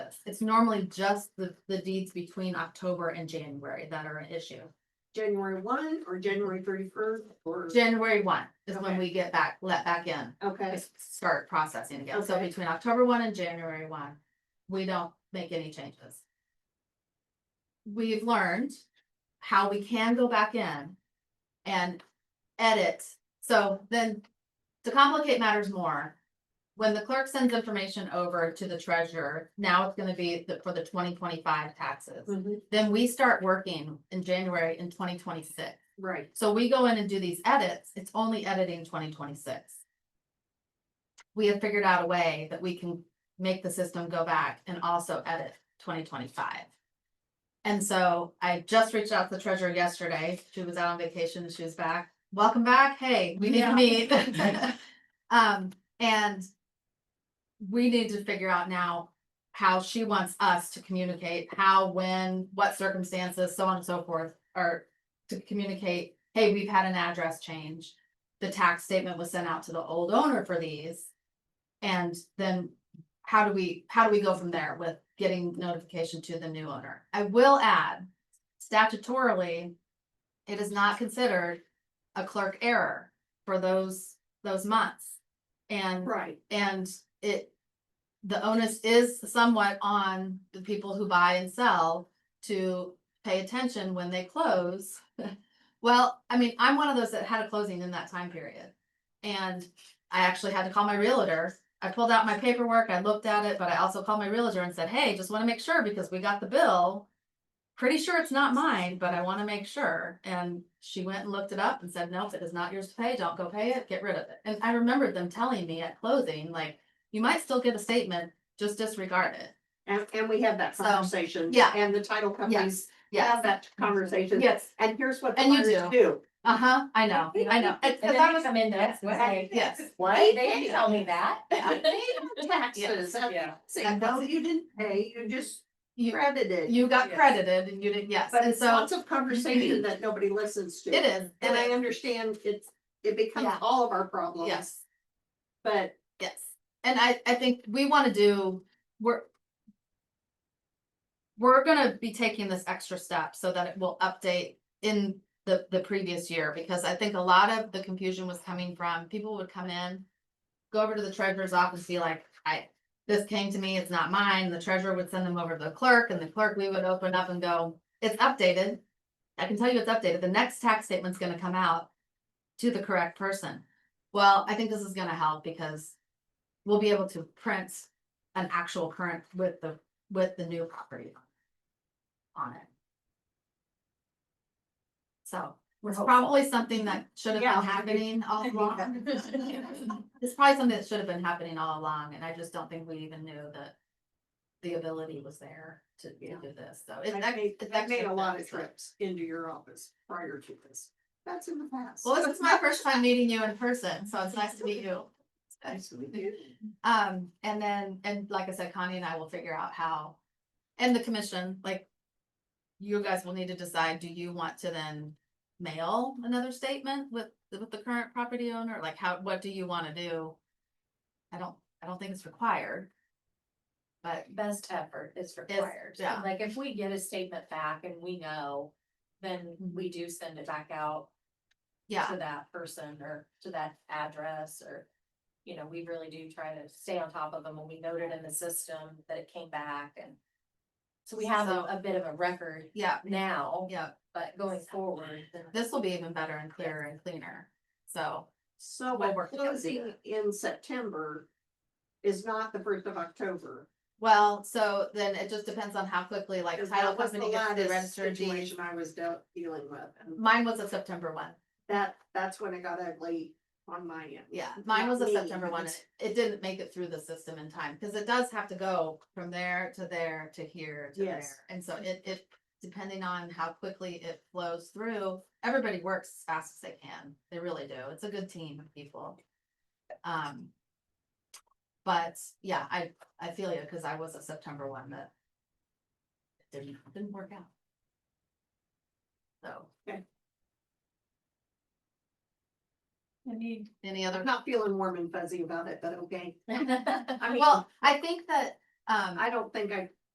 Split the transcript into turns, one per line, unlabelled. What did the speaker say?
this. It's normally just the, the deeds between October and January that are an issue.
January one or January thirty first or,
January one is when
Okay.
we get back, let back in,
okay,
s- start processing again. So
Okay.
between October one and January one, we don't make any changes. We've learned how we can go back in and edit. So then to complicate matters more, when the clerk sends information over to the treasurer, now it's gonna be the- for the twenty twenty-five taxes.
Mhm,
Then we start working in January in twenty twenty-six.
right,
So we go in and do these edits, it's only editing twenty twenty-six. We have figured out a way that we can make the system go back and also edit twenty twenty-five. And so I just reached out to the treasurer yesterday, she was out on vacation, she was back, welcome back, hey, we need to
Yeah.
meet. Um, and we need to figure out now how she wants us to communicate, how, when, what circumstances, so on and so forth, are to communicate, hey, we've had an address change. The tax statement was sent out to the old owner for these. And then how do we, how do we go from there with getting notification to the new owner? I will add statutorily, it is not considered a clerk error for those, those months. And
right.
and it, the onus is somewhat on the people who buy and sell to pay attention when they close. Well, I mean, I'm one of those that had a closing in that time period. And I actually had to call my realtor. I pulled out my paperwork, I looked at it, but I also called my realtor and said, hey, just wanna make sure because we got the bill. Pretty sure it's not mine, but I wanna make sure. And she went and looked it up and said, nope, it is not yours to pay. Don't go pay it. Get rid of it. And I remembered them telling me at closing, like, you might still get a statement, just disregard it.
And, and we had that
So,
conversation.
yeah.
And the title companies have
Yes,
that conversation.
yes.
And here's what the
And you
buyers do.
Uh-huh, I know, I know. It- it-
And then
that
they
was-
come in the next way.
Yes,
What? They didn't tell me that.
They have Taxes. and
Yeah.
Say, no, you didn't pay, you just
you,
credited.
you got
Yes.
credited and you didn't, yes,
But
and
it's
so
lots of conversation that nobody listens to.
it is. it
And I
is,
understand it's, it becomes
Yeah.
all of our problems.
Yes.
But
Yes, and I, I think we wanna do, we're. We're gonna be taking this extra step so that it will update in the, the previous year, because I think a lot of the confusion was coming from, people would come in. Go over to the treasurer's office, be like, I, this came to me, it's not mine, the treasurer would send them over to the clerk, and the clerk, we would open up and go, it's updated. I can tell you it's updated, the next tax statement's gonna come out to the correct person. Well, I think this is gonna help because we'll be able to print an actual current with the, with the new property on it. So,
We're
it's
hopeful.
probably something that should have
Yeah.
been happening all along. It's probably something that should have been happening all along, and I just don't think we even knew that the ability was there to to
Yeah.
do this, so. it's
I
ex-
made,
it's
I
extra
made a lot of
steps, so.
trips into your office prior to this. That's in the past.
Well, this is my first time meeting you in person, so it's nice to meet you.
Nice to meet you.
Um, and then, and like I said, Connie and I will figure out how, and the commission, like. You guys will need to decide, do you want to then mail another statement with, with the current property owner, like how, what do you wanna do? I don't, I don't think it's required. But
Best effort is required.
yeah.
Like if we get a statement back and we know, then we do send it back out
Mm-hmm. yeah,
to that person or to that address or. You know, we really do try to stay on top of them and we noted in the system that it came back and. So we have a,
So-
a bit of a record
yeah,
now,
yeah,
but going forward, then
this will be even better and clearer and cleaner, so.
So
Well,
what
we're-
closing in September is not the first of October.
Well, so then it just depends on how quickly like
'cause
title
that was the
company gets the
latest
registered deeds.
Situation I was dealt, dealing with, and
Mine was a September one.
that, that's when it got ugly on my end.
Yeah, mine was a
Not me,
September one.
but-
It- It didn't make it through the system in time, because it does have to go from there to there to here to there.
Yes.
And so it, it, depending on how quickly it flows through, everybody works as fast as they can. They really do. It's a good team of people. Um. But yeah, I, I feel you, because I was a September one that didn't, didn't work out. So, any other?
I'm not feeling warm and fuzzy about it, but okay.
I
I mean,
Well, I think that, um.
I don't think I